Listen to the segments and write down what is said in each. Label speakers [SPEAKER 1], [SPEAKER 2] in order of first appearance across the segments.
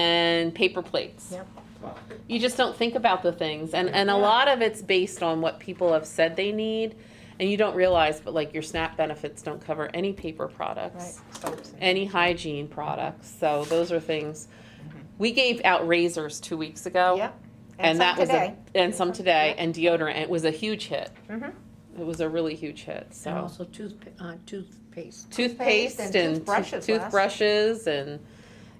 [SPEAKER 1] and paper plates.
[SPEAKER 2] Yep.
[SPEAKER 1] You just don't think about the things, and and a
[SPEAKER 2] Yeah.
[SPEAKER 1] lot of it's based on what people have said they need, and you don't realize, but like your SNAP benefits don't cover any paper
[SPEAKER 2] Right.
[SPEAKER 1] products,
[SPEAKER 2] Soaps and-
[SPEAKER 1] any hygiene products. So those are things. We gave out razors two weeks ago.
[SPEAKER 2] Mm-hmm. Yep.
[SPEAKER 1] and,
[SPEAKER 2] some
[SPEAKER 1] that was
[SPEAKER 2] today.
[SPEAKER 1] a and some today
[SPEAKER 2] Yeah.
[SPEAKER 1] and deodorant and it was a huge hit
[SPEAKER 2] Mhm.
[SPEAKER 1] it was a really huge hit so
[SPEAKER 3] And also toothp- uh, toothpaste.
[SPEAKER 1] toothpaste and,
[SPEAKER 2] and
[SPEAKER 1] toothbrushes,
[SPEAKER 2] toothbrushes last-
[SPEAKER 1] toothbrushes and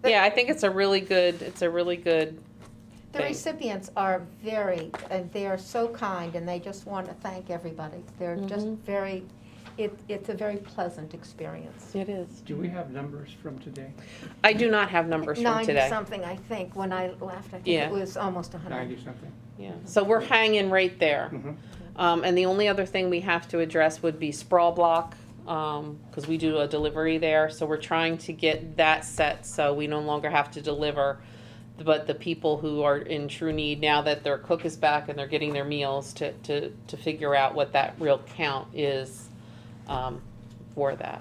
[SPEAKER 2] The-
[SPEAKER 1] yeah i think it's a really good it's a really good
[SPEAKER 2] The
[SPEAKER 1] thing.
[SPEAKER 2] recipients are very, and they are so kind, and they just want to thank everybody. They're just
[SPEAKER 1] Mhm.
[SPEAKER 2] very, it, it's a very pleasant experience.
[SPEAKER 1] it is
[SPEAKER 4] Do we have numbers from today?
[SPEAKER 1] i do not have numbers from today
[SPEAKER 2] Ninety-something, I think, when I left, I think
[SPEAKER 1] Yeah.
[SPEAKER 2] it was almost a hundred.
[SPEAKER 4] Ninety something?
[SPEAKER 1] yeah so we're hanging right there
[SPEAKER 4] Mhm.
[SPEAKER 1] um, and the only other thing we have to address would be sprawl block because we do a delivery there so we're trying to get that set so we no longer have to deliver but the people who are in true need now that their cook is back and they're getting their meals to, to, to figure out what that real count is um, for that.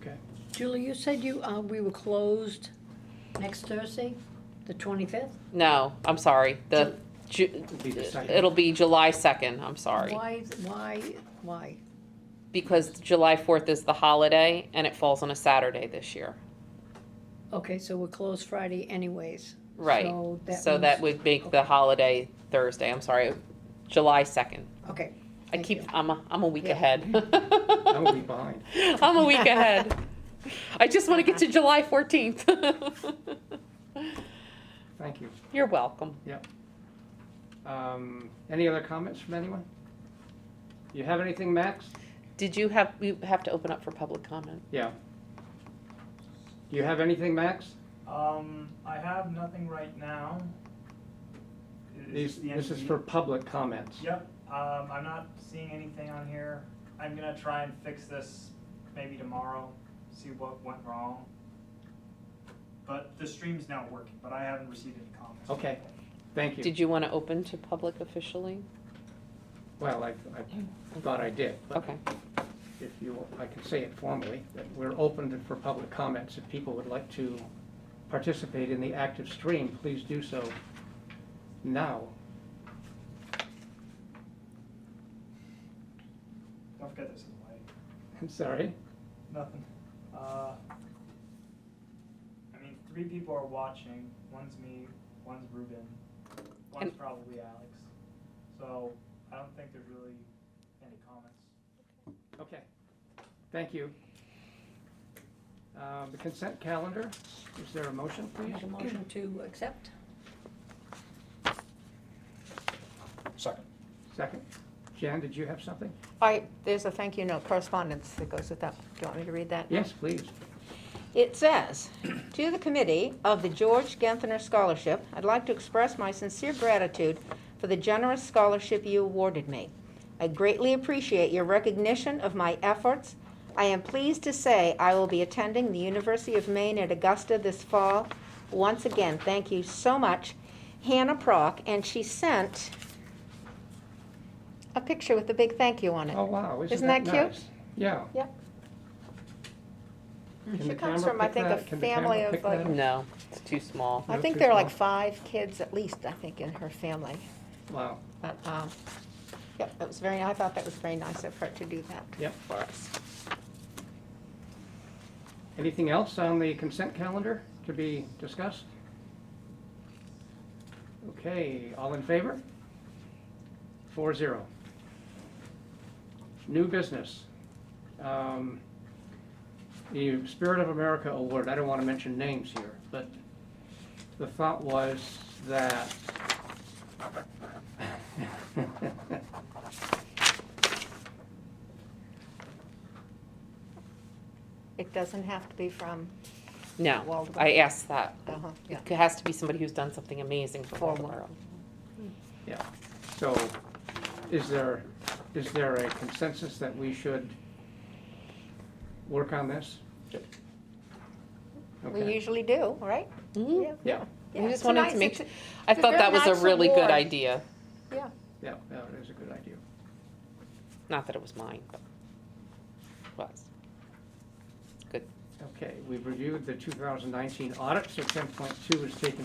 [SPEAKER 4] Okay.
[SPEAKER 3] Julie, you said you, uh, we were closed next Thursday, the 25th?
[SPEAKER 1] No, I'm sorry. The Ju-
[SPEAKER 4] It'll be the second.
[SPEAKER 1] it'll be July 2nd. I'm sorry.
[SPEAKER 3] Why, why, why?
[SPEAKER 1] Because July 4th is the holiday and it falls on a Saturday this year.
[SPEAKER 3] Okay, so we're closed Friday anyways.
[SPEAKER 1] Right.
[SPEAKER 3] So that
[SPEAKER 1] So that
[SPEAKER 3] means-
[SPEAKER 1] would make the holiday Thursday, I'm sorry, July 2nd.
[SPEAKER 3] Okay.
[SPEAKER 1] I
[SPEAKER 3] Thank
[SPEAKER 1] keep,
[SPEAKER 3] you.
[SPEAKER 1] I'm, a am a week
[SPEAKER 3] Yeah.
[SPEAKER 1] ahead.
[SPEAKER 4] That will be behind.
[SPEAKER 1] I'm a week ahead. I just want to get to July 14th.
[SPEAKER 4] Thank you.
[SPEAKER 1] You're welcome.
[SPEAKER 4] Um, Any other comments from anyone? You have anything, Max?
[SPEAKER 1] Did you have, we have to open up for public comment.
[SPEAKER 4] Yeah. Do you have anything, Max?
[SPEAKER 5] Um, I have nothing right now. Is
[SPEAKER 4] These,
[SPEAKER 5] the
[SPEAKER 4] this is
[SPEAKER 5] entity-
[SPEAKER 4] for public comments.
[SPEAKER 5] Yep, um, I'm not seeing anything on here. I'm gonna try and fix this maybe tomorrow, see what went wrong. But the stream's now working, but I haven't received any comments.
[SPEAKER 4] Okay. Thank you.
[SPEAKER 1] Did you want to open to public officially?
[SPEAKER 4] Well, I, I thought I did. but
[SPEAKER 1] Okay.
[SPEAKER 4] If you, I can say it formally, that we're open to- for public comments. If people would like to participate in the active stream, please do so now.
[SPEAKER 5] Don't forget this is light,
[SPEAKER 4] I'm sorry.
[SPEAKER 5] nothing. Uh, I mean, three people are watching. One's me, one's Ruben, one's
[SPEAKER 1] And-
[SPEAKER 5] probably Alex. So I don't think there's really any comments.
[SPEAKER 4] Okay, thank you. Uh, The consent calendar, is there a motion, please?
[SPEAKER 3] Make a motion to accept?
[SPEAKER 6] Second.
[SPEAKER 4] Second. Jan, did you have something?
[SPEAKER 2] I, there's a thank you note, correspondence that goes with that. Do you want me to read that?
[SPEAKER 4] Yes, please.
[SPEAKER 2] It says, "To the committee of the George Genthner Scholarship, I'd like to express my sincere gratitude for the generous scholarship you awarded me. I greatly appreciate your recognition of my efforts. I am pleased to say I will be attending the University of Maine at Augusta this fall. Once again, thank you so much, Hannah Prock." And she sent a picture with a big thank you on it.
[SPEAKER 4] Oh, wow, isn't
[SPEAKER 2] Isn't
[SPEAKER 4] that
[SPEAKER 2] that cute?
[SPEAKER 4] nice? Yeah.
[SPEAKER 2] Yep.
[SPEAKER 4] Can
[SPEAKER 2] She
[SPEAKER 4] the
[SPEAKER 2] comes
[SPEAKER 4] camera
[SPEAKER 2] from, I
[SPEAKER 4] pick
[SPEAKER 2] think, a
[SPEAKER 4] that? Can the
[SPEAKER 2] family
[SPEAKER 4] camera
[SPEAKER 2] of,
[SPEAKER 4] pick
[SPEAKER 2] like,
[SPEAKER 4] that up?
[SPEAKER 1] No, it's too small.
[SPEAKER 2] I
[SPEAKER 4] No,
[SPEAKER 2] think
[SPEAKER 4] too
[SPEAKER 2] there are
[SPEAKER 4] small.
[SPEAKER 2] like five kids at least, I think, in her family.
[SPEAKER 4] Wow,
[SPEAKER 2] But, um, yep, that was very, I thought that was very nice of her to do that
[SPEAKER 4] Yep.
[SPEAKER 2] for us.
[SPEAKER 4] anything else on the consent calendar to be discussed? Okay, all in favor? Four zero. New business. Um, The Spirit of America Award, I don't want to mention names here, but the thought was that
[SPEAKER 2] It doesn't have to be from,
[SPEAKER 1] No,
[SPEAKER 2] Waldorf.
[SPEAKER 1] I asked that.
[SPEAKER 2] uh-huh, yeah.
[SPEAKER 1] It has to be somebody who's done something amazing for
[SPEAKER 2] For
[SPEAKER 1] Waldorf.
[SPEAKER 4] So, is there, is there a consensus that we should work on this?
[SPEAKER 6] Yep.
[SPEAKER 2] We
[SPEAKER 4] Okay,
[SPEAKER 2] usually do, right?
[SPEAKER 1] Mhm.
[SPEAKER 4] yeah,
[SPEAKER 2] Yeah,
[SPEAKER 1] I
[SPEAKER 2] it's
[SPEAKER 1] just
[SPEAKER 2] a
[SPEAKER 1] wanted
[SPEAKER 2] nice-
[SPEAKER 1] to make,
[SPEAKER 2] it's a-
[SPEAKER 1] sure I
[SPEAKER 2] it's a
[SPEAKER 1] thought
[SPEAKER 2] very
[SPEAKER 1] that was a
[SPEAKER 2] nice
[SPEAKER 1] really good
[SPEAKER 2] award.
[SPEAKER 1] idea.
[SPEAKER 4] yeah, that is a good idea.
[SPEAKER 1] Not that it was mine, but it was. Good
[SPEAKER 4] Okay, we've reviewed the 2019 audit, so 10.2 is taken